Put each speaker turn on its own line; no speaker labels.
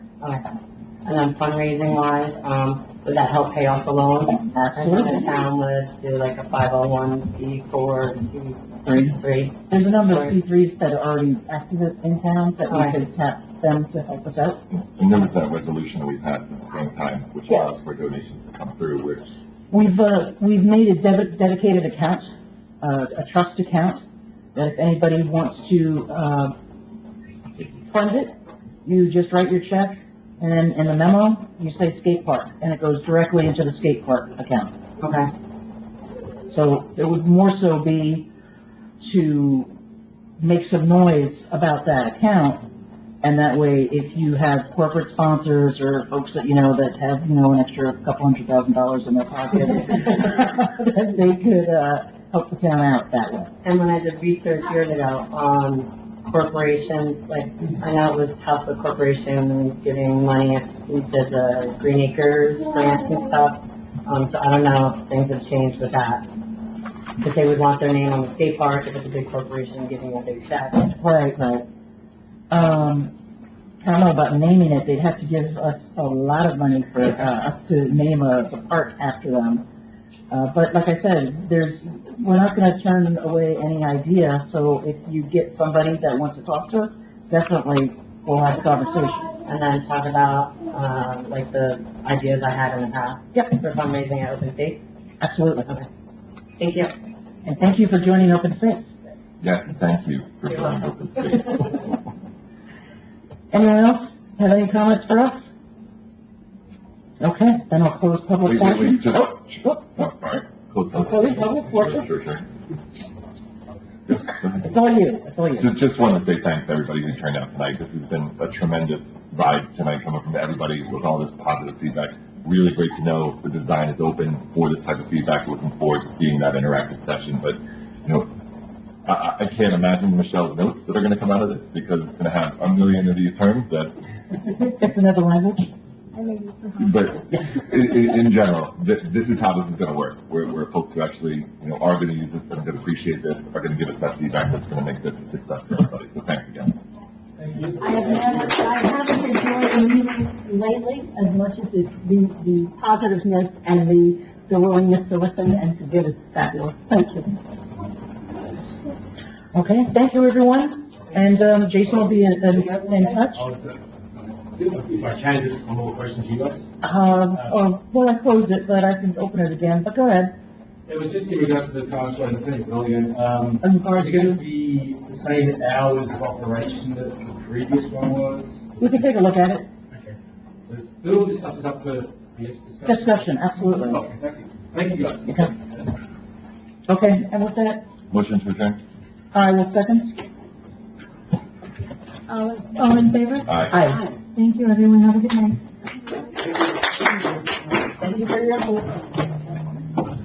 Alright. Uh, And then fundraising wise, um, would that help pay off the loan? And then the
Absolutely.
town would do like a five oh one C four, C
Three.
three.
There's a number of C threes that are already active in town that we
Right.
could tap them to help us out.
And there was that resolution that we passed at the same time, which allows for donations to come through, which,
We've, uh, we've made a debit, dedicated account, uh, a trust account, that if anybody wants to, uh, fund it, you just write your check, and then in the memo, you say skate park, and it goes directly into the skate park account.
Okay,
So it would more so be to make some noise about that account, and that way, if you have corporate sponsors or folks that you know that have, you know, an extra couple hundred thousand dollars in their pockets, that they could, uh, help the town out that way.
and when I did research years ago on corporations, like, I know it was tough with corporations giving money to the Green Acres grants and stuff, um, so I don't know if things have changed with that. Because they would want their name on the skate park if it's a big corporation giving a big check.
Right, right. Um, I don't know about naming it, they'd have to give us a lot of money for, uh, us to name a, a park after them. Uh, but like I said, there's, we're not gonna turn away any idea, so if you get somebody that wants to talk to us, definitely we'll have a conversation.
And then talk about, uh, like the ideas I had in the past
Yep,
for fundraising at open space.
absolutely.
Thank you.
And thank you for joining Open Space.
yes, and thank you for filling open space.
Anyone else have any comments for us? Okay, then I'll close public
Wait, wait,
portion.
wait, just,
Oh, oh,
oh, sorry. Close
Close public portion.
Sure, sure. Just- go ahead.
It's all you, it's all you.
Just, just want to say thanks to everybody who turned out tonight. This has been a tremendous ride tonight coming from everybody with all this positive feedback. Really great to know the design is open for this type of feedback. Looking forward to seeing that interactive session, but, you know, I- I, I can't imagine Michelle's notes that are going to come out of this because it's going to have a million of these terms that,
It's another language.
but in, in, in general, th- this is how this is going to work. Where, where folks who actually, you know, are going to use this, that are going to appreciate this, are going to give us that feedback that's going to make this a success for everybody. So thanks again.
I have noticed, I haven't enjoyed the meeting lately as much as it's the, the positiveness and the, the willingness to listen and to give is fabulous. Thank you.
Okay, thank you, everyone. And, um, Jason will be in, in in touch.
If I can, just one more question to you guys.
Um, oh, well, I closed it, but I can open it again, but go ahead.
It was just in regards to the car show and thing, William. Um,
In regards
is it going
to,
to be the same hours of operation that the previous one was?
we can take a look at it.
Okay. So all this stuff is up for yes discussion?
Discussion, absolutely.
Okay, thank you. Thank you, guys.
Okay. Okay, and with that,
Motion to adjourn.
I will second.
All, all um, in favor?
Aye.
Aye.
Thank you, everyone. Have a good night.